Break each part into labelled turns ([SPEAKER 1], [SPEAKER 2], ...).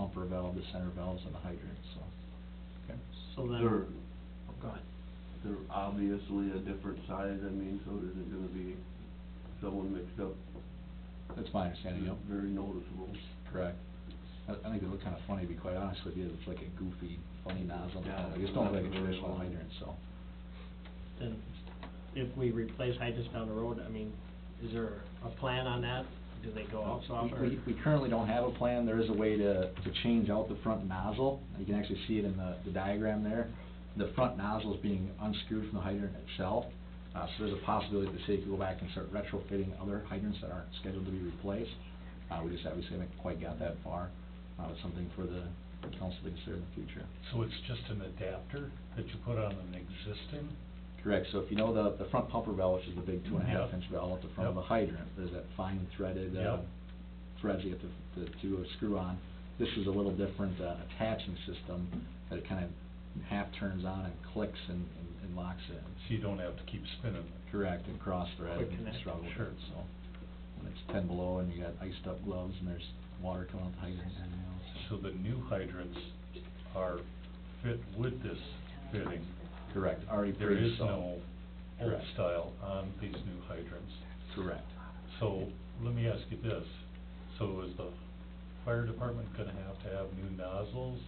[SPEAKER 1] upper valve, the center valves, and the hydrant, so.
[SPEAKER 2] So
[SPEAKER 3] They're,
[SPEAKER 2] then, oh, go ahead.
[SPEAKER 3] they're obviously a different size, I mean, so is it gonna be someone mixed up?
[SPEAKER 1] That's my understanding, yep.
[SPEAKER 3] Very noticeable.
[SPEAKER 1] Correct. I, I think it looked kinda funny, to be quite honest with you, it's like a goofy, funny nozzle,
[SPEAKER 3] Yeah.
[SPEAKER 1] I just don't like a traditional hydrant, so.
[SPEAKER 2] Then, if we replace hydrants down the road, I mean, is there a plan on that? Do they go out
[SPEAKER 1] We-
[SPEAKER 2] software?
[SPEAKER 1] We, we currently don't have a plan, there is a way to, to change out the front nozzle, you can actually see it in the, the diagram there. The front nozzle is being unscrewed from the hydrant itself, uh, so there's a possibility that the city could go back and start retrofitting other hydrants that aren't scheduled to be replaced. Uh, we just obviously haven't quite got that far, uh, it's something for the council to consider in the future.
[SPEAKER 4] So it's just an adapter that you put on an existing?
[SPEAKER 1] Correct, so if you know the, the front pumper valve, which is the big two and a half
[SPEAKER 4] Yeah.
[SPEAKER 1] inch valve at the front of a
[SPEAKER 4] Yeah.
[SPEAKER 1] hydrant, there's that fine threaded, uh,
[SPEAKER 4] Yeah.
[SPEAKER 1] threads you have to, to, to screw on. This is a little different, uh, attaching system that it kind of half turns on and clicks and, and- and locks in.
[SPEAKER 4] So you don't have to keep spinning
[SPEAKER 1] Correct, and cross thread
[SPEAKER 2] Quick
[SPEAKER 1] and
[SPEAKER 2] connect.
[SPEAKER 1] struggle with
[SPEAKER 4] Sure.
[SPEAKER 1] it, so. When it's ten below and you got iced up gloves and there's water coming out the hydrant and everything else.
[SPEAKER 4] So the new hydrants are fit with this fitting.
[SPEAKER 1] Correct, already
[SPEAKER 4] There is
[SPEAKER 1] pre-installed.
[SPEAKER 4] no old
[SPEAKER 1] Correct.
[SPEAKER 4] style on these new hydrants.
[SPEAKER 1] Correct.
[SPEAKER 4] So let me ask you this, so is the fire department gonna have to have new nozzles?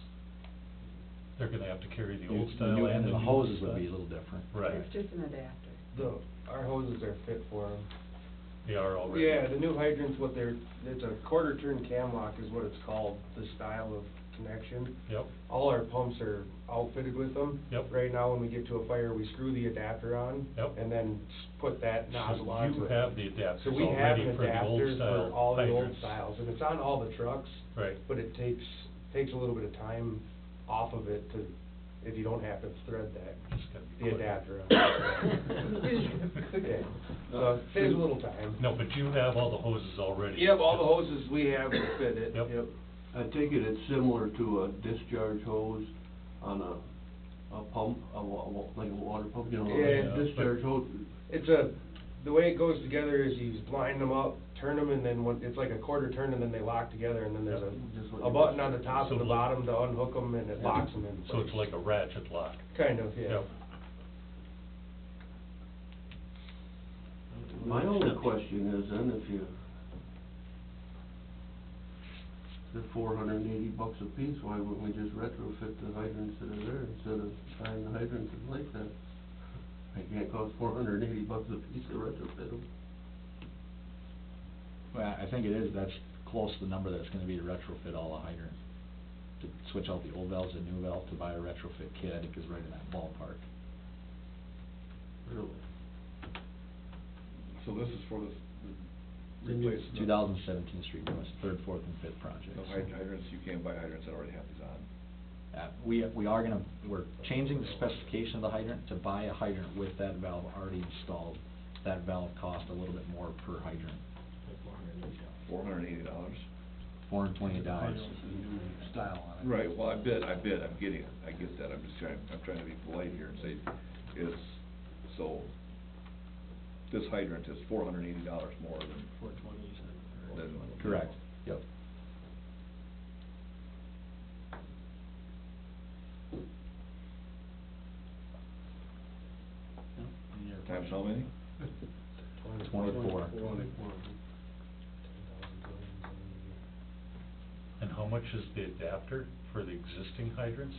[SPEAKER 4] They're gonna have to carry the old
[SPEAKER 1] New-
[SPEAKER 4] style and
[SPEAKER 1] new-
[SPEAKER 4] the new
[SPEAKER 1] the hoses would
[SPEAKER 4] style?
[SPEAKER 1] be a little different.
[SPEAKER 4] Right,
[SPEAKER 5] It's just an adapter.
[SPEAKER 6] The, our hoses are fit for them.
[SPEAKER 4] they are already.
[SPEAKER 6] Yeah, the new hydrant's what they're, it's a quarter turn cam lock is what it's called, the style of connection.
[SPEAKER 4] Yep,
[SPEAKER 6] All our pumps are outfitted with them.
[SPEAKER 4] Yep.
[SPEAKER 6] Right now, when we get to a fire, we screw the adapter on.
[SPEAKER 4] Yep.
[SPEAKER 6] And then s- put that nozzle
[SPEAKER 4] so
[SPEAKER 6] onto
[SPEAKER 4] you
[SPEAKER 6] it.
[SPEAKER 4] have the
[SPEAKER 6] So
[SPEAKER 4] adapters
[SPEAKER 6] we have
[SPEAKER 4] already
[SPEAKER 6] an
[SPEAKER 4] for the old
[SPEAKER 6] adapter
[SPEAKER 4] style
[SPEAKER 6] for all the old
[SPEAKER 4] hydrants.
[SPEAKER 6] styles, and it's on all the trucks,
[SPEAKER 4] Right,
[SPEAKER 6] but it takes, takes a little bit of time off of it to, if you don't have to thread that,
[SPEAKER 4] just gotta be
[SPEAKER 6] the
[SPEAKER 4] quick.
[SPEAKER 6] adapter on. Yeah, so it saves Uh, a little time.
[SPEAKER 4] Uh, No, but you have all the hoses already.
[SPEAKER 6] Yep, all the hoses we have are fitted,
[SPEAKER 4] Yep.
[SPEAKER 6] yep.
[SPEAKER 3] I take it it's similar to a discharge hose on a, a pump, a wa- wa- like a water pump, you know,
[SPEAKER 6] Yeah,
[SPEAKER 3] a
[SPEAKER 4] but-
[SPEAKER 3] discharge hose.
[SPEAKER 6] It's a, the way it goes together is you just line them up, turn them, and then one, it's like a quarter turn, and then they lock together, and then there's
[SPEAKER 3] Just
[SPEAKER 6] a,
[SPEAKER 3] what
[SPEAKER 6] a
[SPEAKER 3] you-
[SPEAKER 6] button on the top
[SPEAKER 4] So
[SPEAKER 6] and the
[SPEAKER 4] like-
[SPEAKER 6] bottom to unhook them, and it locks them in place.
[SPEAKER 4] So it's like a ratchet lock.
[SPEAKER 6] Kind of, yeah.
[SPEAKER 4] Yep.
[SPEAKER 3] My only question is then if you, they're four hundred and eighty bucks a piece, why wouldn't we just retrofit the hydrants that are there instead of buying the hydrants in place then? It can't cost four hundred and eighty bucks a piece to retrofit them.
[SPEAKER 1] Well, I think it is, that's close to the number that's gonna be to retrofit all the hydrant. To switch out the old valves and new valve to buy a retrofit kit, I think is right in that ballpark.
[SPEAKER 3] Really?
[SPEAKER 7] So this is for the, the
[SPEAKER 2] The new-
[SPEAKER 7] replacement.
[SPEAKER 1] Two thousand seventeen street It third, fourth, and fifth project.
[SPEAKER 7] No hyd- hydrants, you can't buy hydrants that already have these on.
[SPEAKER 1] Uh, we, we are gonna, we're changing the specification of the hydrant to buy a hydrant with that valve already installed. That valve cost a little bit more per hydrant,
[SPEAKER 7] Four hundred and eighty dollars?
[SPEAKER 1] four hundred and twenty dollars.
[SPEAKER 2] Style
[SPEAKER 7] Right, well, I bid, I bid, I'm getting it, I get that, I'm just trying, I'm trying to be polite here and say, it's, so, this hydrant is four hundred and eighty dollars more than,
[SPEAKER 2] Four twenty, you said, or-
[SPEAKER 7] than.
[SPEAKER 1] Correct, yep.
[SPEAKER 2] Yeah. Any other
[SPEAKER 7] Times
[SPEAKER 2] questions?
[SPEAKER 7] how many?
[SPEAKER 1] Twenty-four.
[SPEAKER 4] And how much is the adapter for the existing hydrants?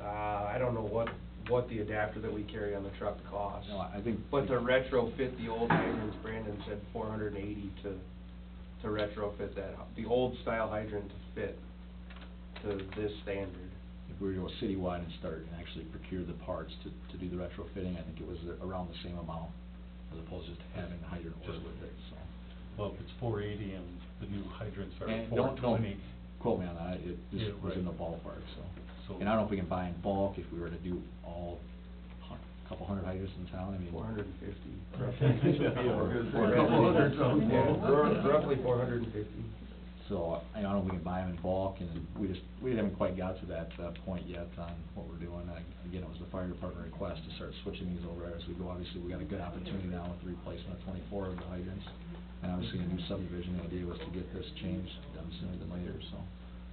[SPEAKER 6] Uh, I don't know what, what the adapter that we carry on the truck costs.
[SPEAKER 1] No, I think.
[SPEAKER 6] But to retrofit the old hydrants, Brandon said four hundred and eighty to, to retrofit that, the old style hydrant to fit to this standard.
[SPEAKER 1] if we were to go citywide and start and actually procure the parts to, to do the retrofitting, I think it was around the same amount, as opposed to just having the hydrant ordered with it, so.
[SPEAKER 4] Well, if it's four eighty and the new hydrants are
[SPEAKER 1] And
[SPEAKER 4] four
[SPEAKER 1] don't, don't
[SPEAKER 4] twenty,
[SPEAKER 1] quote me on that, it
[SPEAKER 4] Yeah,
[SPEAKER 1] just was in the
[SPEAKER 4] right.
[SPEAKER 1] ballpark, so.
[SPEAKER 4] so.
[SPEAKER 1] And I don't know if we can buy in bulk, if we were to do all, a couple hundred hydrants in town, I mean.
[SPEAKER 6] Four hundred and fifty.
[SPEAKER 1] Or a couple hundred, so-
[SPEAKER 6] Roughly four hundred and fifty.
[SPEAKER 1] So, uh, I don't know if we can buy them in bulk, and we just, we haven't quite got to that, uh point yet on what we're doing. I- Again, it was the fire department request to start switching these over as we go. Obviously, we got a good opportunity now with the replacement of twenty-four of the hydrants. And obviously, the new subdivision idea was to get this changed done sooner than later, so.